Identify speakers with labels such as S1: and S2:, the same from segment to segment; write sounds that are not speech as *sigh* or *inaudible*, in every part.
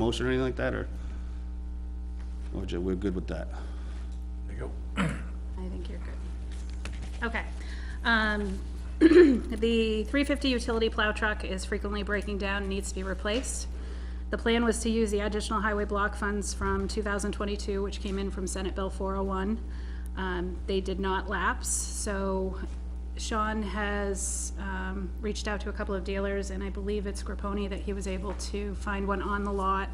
S1: motion or anything like that, or? Or ju- we're good with that?
S2: There you go.
S3: I think you're good. Okay. Um, *clears throat* The 350 utility plow truck is frequently breaking down, and needs to be replaced. The plan was to use the additional highway block funds from 2022, which came in from Senate Bill 401. Um, They did not lapse, so Sean has um, reached out to a couple of dealers, and I believe it's Grapponi that he was able to find one on the lot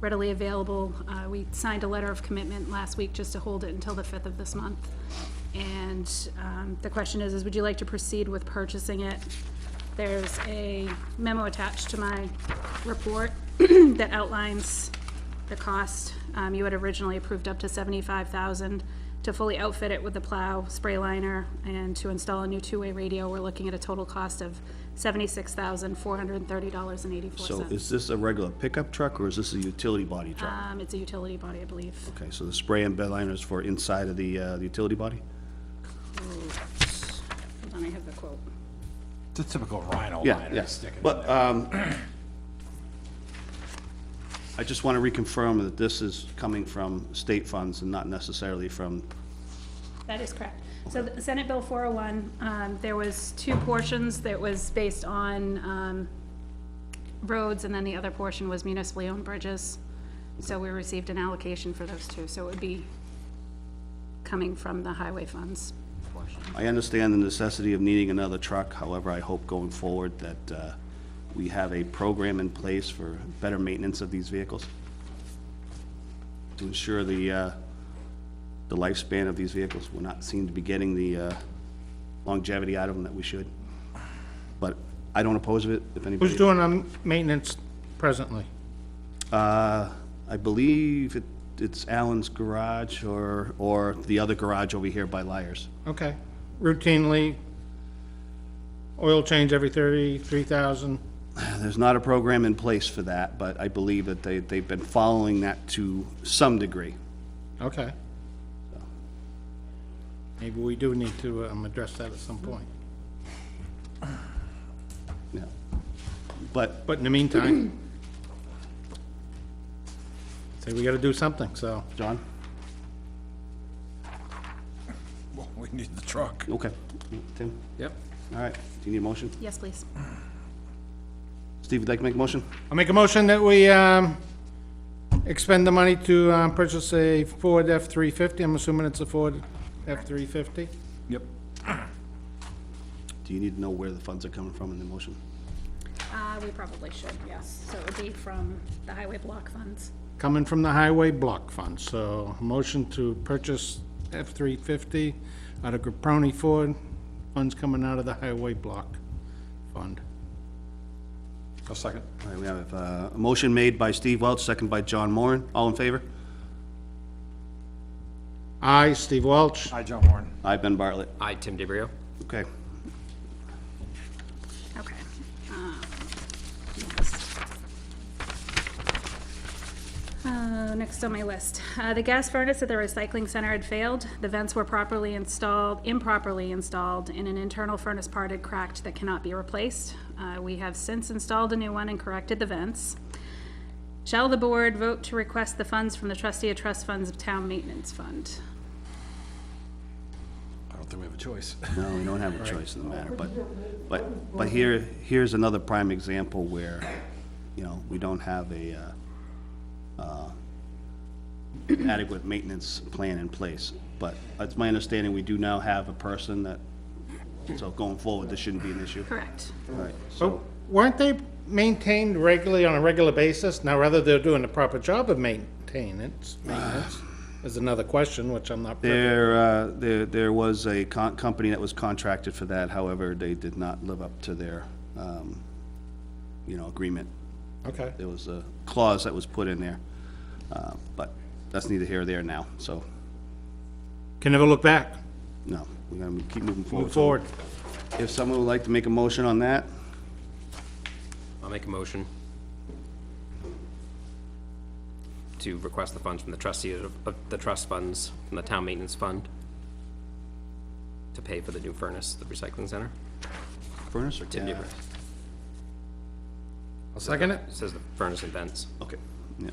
S3: readily available. Uh, We signed a letter of commitment last week just to hold it until the 5th of this month. And um, the question is, is would you like to proceed with purchasing it? There's a memo attached to my report *clears throat* that outlines the cost. Um, You had originally approved up to 75,000 to fully outfit it with the plow, spray liner, and to install a new two-way radio. We're looking at a total cost of $76,430.84.
S1: So is this a regular pickup truck, or is this a utility body truck?
S3: Um, It's a utility body, I believe.
S1: Okay, so the spray and bed liner is for inside of the, uh, the utility body?
S3: Hold on, I have the quote.
S2: It's a typical Rhino
S1: Yeah,
S2: liner
S1: yes,
S2: sticking.
S1: but, um, I just want to reconfirm that this is coming from state funds and not necessarily from,
S3: That is correct. So the Senate Bill 401, um, there was two portions that was based on um, roads, and then the other portion was municipally owned bridges. So we received an allocation for those two, so it would be coming from the highway funds portion.
S1: I understand the necessity of needing another truck, however, I hope going forward that, uh, we have a program in place for better maintenance of these vehicles to ensure the, uh, the lifespan of these vehicles. We're not, seem to be getting the, uh, longevity out of them that we should. But I don't oppose it, if anybody.
S4: Who's doing the maintenance presently?
S1: Uh, I believe it, it's Alan's garage or, or the other garage over here by Liars.
S4: Okay, routinely, oil change every thirty-three thousand,
S1: There's not a program in place for that, but I believe that they, they've been following that to some degree.
S4: okay. Maybe we do need to, um, address that at some point.
S1: Yeah. But,
S4: But in the meantime, *coughs* say we gotta do something, so,
S1: John?
S2: Well, We need the truck.
S1: Okay. Tim?
S4: yep.
S1: All right. Do you need a motion?
S3: Yes, please.
S1: Steve, would you like to make a motion?
S4: I'll make a motion that we, um, expend the money to, um, purchase a Ford F-350. I'm assuming it's a Ford F-350.
S2: Yep.
S1: Do you need to know where the funds are coming from in the motion?
S3: Uh, We probably should, yes. So it would be from the highway block funds.
S4: coming from the highway block fund, so a motion to purchase F-350 out of Graproni Ford, funds coming out of the highway block fund.
S2: A second.
S1: All right, we have uh, a motion made by Steve Welch, second by John Moran. All in favor?
S4: I, Steve Welch,
S2: Hi, John Warren.
S1: Aye, Ben Bartlett.
S5: I, Tim DeBrio.
S1: Okay.
S3: Okay. Um, next. Uh, Next on my list, Uh, the gas furnace at the recycling center had failed. The vents were properly installed, improperly installed, and an internal furnace part had cracked that cannot be replaced. Uh, We have since installed a new one and corrected the vents. Shall the board vote to request the funds from the trustee of trust funds of town maintenance fund?
S2: I don't think we have a choice.
S1: No, we don't have a choice in the matter, but, but, but here, here's another prime example where, you know, we don't have a, uh, uh, adequate maintenance plan in place. But it's my understanding, we do now have a person that, so going forward, this shouldn't be an issue.
S3: Correct.
S1: All right, so,
S4: So weren't they maintained regularly on a regular basis? Now, whether they're doing a proper job of maintenance, maintenance is another question, which I'm not. privy-
S1: there, uh, there, there was a con- company that was contracted for that, however, they did not live up to their, um, you know, agreement.
S4: Okay,
S1: there was a clause that was put in there, uh, but that's neither here nor there now, so,
S4: can never look back,
S1: no, we're gonna keep moving forward.
S4: move forward.
S1: If someone would like to make a motion on that,
S5: I'll make a motion to request the funds from the trustee of, of the trust funds, from the town maintenance fund, to pay for the new furnace, at the recycling center.
S1: furnace or?
S5: Tim
S1: Yeah.
S5: DeBrio.
S4: I'll second it.
S5: It says the furnace and vents.
S1: Okay, yeah.